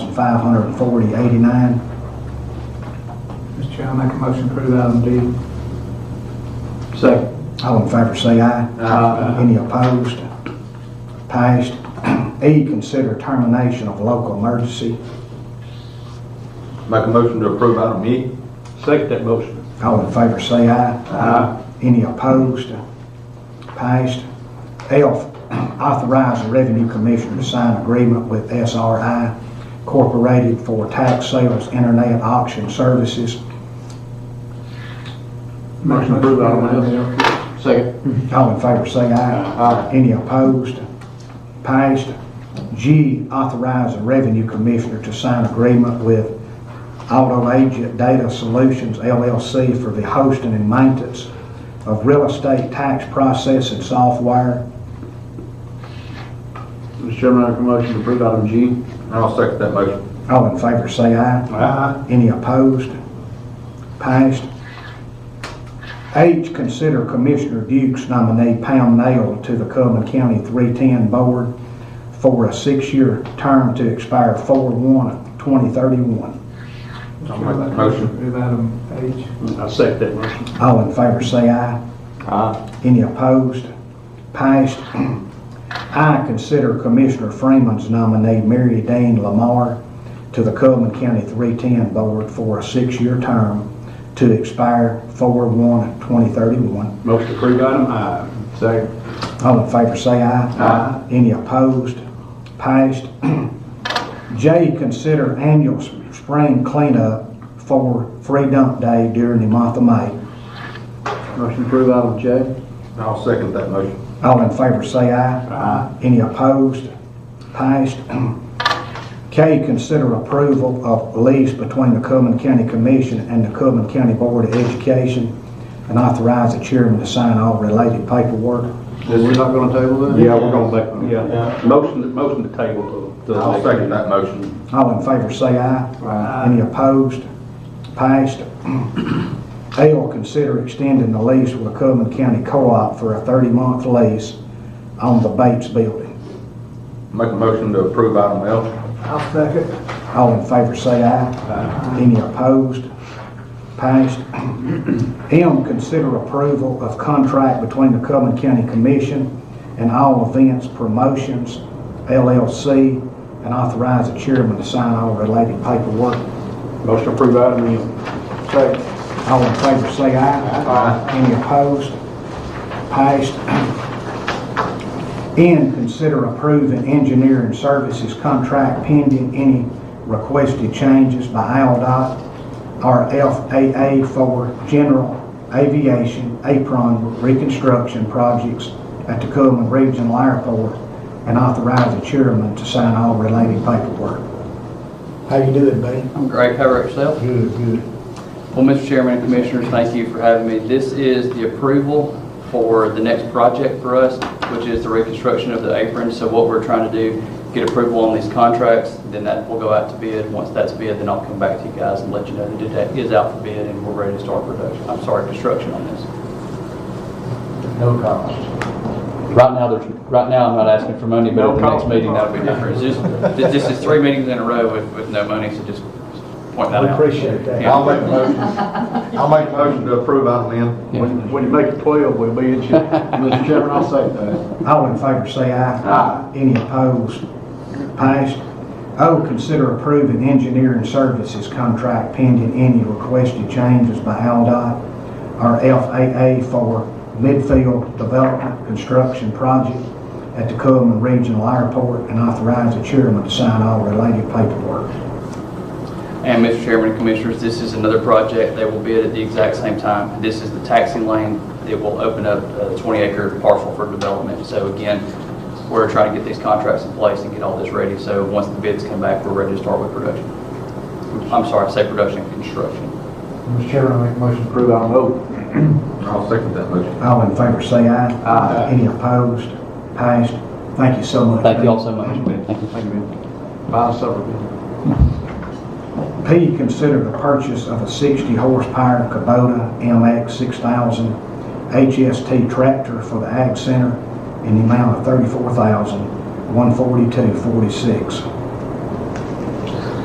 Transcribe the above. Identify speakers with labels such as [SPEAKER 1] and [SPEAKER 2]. [SPEAKER 1] five hundred and forty eighty-nine.
[SPEAKER 2] Mr. Chair, I make a motion to approve item D.
[SPEAKER 3] Second.
[SPEAKER 1] All in favor, say aye.
[SPEAKER 3] Aye.
[SPEAKER 1] Any opposed? Passed. E, consider termination of local emergency.
[SPEAKER 3] Make a motion to approve item E. Second that motion.
[SPEAKER 1] All in favor, say aye.
[SPEAKER 2] Uh,
[SPEAKER 3] Aye.
[SPEAKER 1] Any opposed? Passed. F, authorize the Revenue Commissioner to sign agreement with SRI Incorporated for tax sales internet auction services.
[SPEAKER 2] Motion to approve item F.
[SPEAKER 3] Second.
[SPEAKER 1] All in favor, say aye.
[SPEAKER 3] Aye.
[SPEAKER 1] Any opposed? Passed. G, authorize the Revenue Commissioner to sign agreement with Auto Agent Data Solutions LLC for the hosting and maintenance of real estate tax processing software.
[SPEAKER 3] Mr. Chairman, I make a motion to approve item G. I'll second that motion.
[SPEAKER 1] All in favor, say aye.
[SPEAKER 2] Uh-huh.
[SPEAKER 3] Aye.
[SPEAKER 1] Any opposed? Passed. H, consider Commissioner Dukes nominee Pam Nail to the Coleman County 310 Board for a six-year term to expire 4/1/2031.
[SPEAKER 3] I'll make that motion.
[SPEAKER 2] Approve item H.
[SPEAKER 3] I'll second that motion.
[SPEAKER 1] All in favor, say aye.
[SPEAKER 3] Aye.
[SPEAKER 1] Any opposed? Passed. I, consider Commissioner Freeman's nominee Mary Dean Lamar to the Coleman County 310 Board for a six-year term to expire 4/1/2031.
[SPEAKER 3] Motion to approve item I. Second.
[SPEAKER 1] All in favor, say aye.
[SPEAKER 3] Aye.
[SPEAKER 1] Any opposed? Passed. J, consider annual s- spring cleanup for free dump day during the month of May.
[SPEAKER 3] Motion to approve item J. I'll second that motion.
[SPEAKER 1] All in favor, say aye.
[SPEAKER 3] Aye.
[SPEAKER 1] Any opposed? Passed. K, consider approval of lease between the Coleman County Commission and the Coleman County Board of Education and authorize the chairman to sign all related paperwork.
[SPEAKER 3] We're not gonna table that? Yeah, we're gonna make.
[SPEAKER 4] Yeah, motion, motion to table the.
[SPEAKER 3] I'll second that motion.
[SPEAKER 1] All in favor, say aye.
[SPEAKER 2] Aye.
[SPEAKER 1] Any opposed? Passed. L, consider extending the lease with the Coleman County Co-op for a 30-month lease on the Bates Building.
[SPEAKER 3] Make a motion to approve item L.
[SPEAKER 2] I'll second.
[SPEAKER 1] All in favor, say aye. Any opposed? Passed. M, consider approval of contract between the Coleman County Commission and All Events Promotions LLC and authorize the chairman to sign all related paperwork.
[SPEAKER 3] Motion to approve item L. Second.
[SPEAKER 1] All in favor, say aye.
[SPEAKER 3] Aye.
[SPEAKER 1] Any opposed? Passed. N, consider approving engineering services contract pending any requested changes by ALDOT or FAA for general aviation apron reconstruction projects at the Coleman Regional Airport and authorize the chairman to sign all related paperwork. How you doing, buddy?
[SPEAKER 5] I'm great. How about yourself?
[SPEAKER 1] Good, good.
[SPEAKER 5] Well, Mr. Chairman and Commissioners, thank you for having me. This is the approval for the next project for us, which is the reconstruction of the apron. So what we're trying to do, get approval on these contracts, then that will go out to bid. Once that's bid, then I'll come back to you guys and let you know that it is out for bid and we're ready to start production, I'm sorry, construction on this.
[SPEAKER 3] No comments.
[SPEAKER 5] Right now, there's, right now, I'm not asking for money, but
[SPEAKER 3] No
[SPEAKER 5] at the next
[SPEAKER 3] problem.
[SPEAKER 5] meeting, that'll be different. It's just- This is three meetings in a row with, with no money, so just point that out.
[SPEAKER 1] that.
[SPEAKER 5] Yeah.
[SPEAKER 3] I'll make a motion. I'll make a motion to approve item N.
[SPEAKER 5] When-
[SPEAKER 3] you make it twelve, we'll be in shape. Mr. Chairman, I'll second that.
[SPEAKER 1] All in favor, say aye.
[SPEAKER 3] Aye.
[SPEAKER 1] Any opposed? Passed. O, consider approving engineering services contract pending any requested changes by ALDOT or FAA for midfield development construction project at the Coleman Regional Airport and authorize the chairman to sign all related paperwork.
[SPEAKER 5] And Mr. Chairman and Commissioners, this is another project they will bid at the exact same time. This is the taxing lane that will open up a 20-acre parcel for development. So again, we're trying to get these contracts in place and get all this ready. So once the bids come back, we're ready to start with production. I'm sorry, I say production, construction.
[SPEAKER 2] Mr. Chairman, I make a motion to approve item O.
[SPEAKER 3] I'll second that motion.
[SPEAKER 1] All in favor, say aye.
[SPEAKER 3] Aye.
[SPEAKER 1] Any opposed? Passed. Thank you so much.
[SPEAKER 5] Thank you all so much.
[SPEAKER 3] Thank you, Ben. Buy a supper, Ben.
[SPEAKER 1] P, consider the purchase of a 60 horsepower Kubota MX 6000 HST tractor for the Ag Center in the amount of $34,142.46.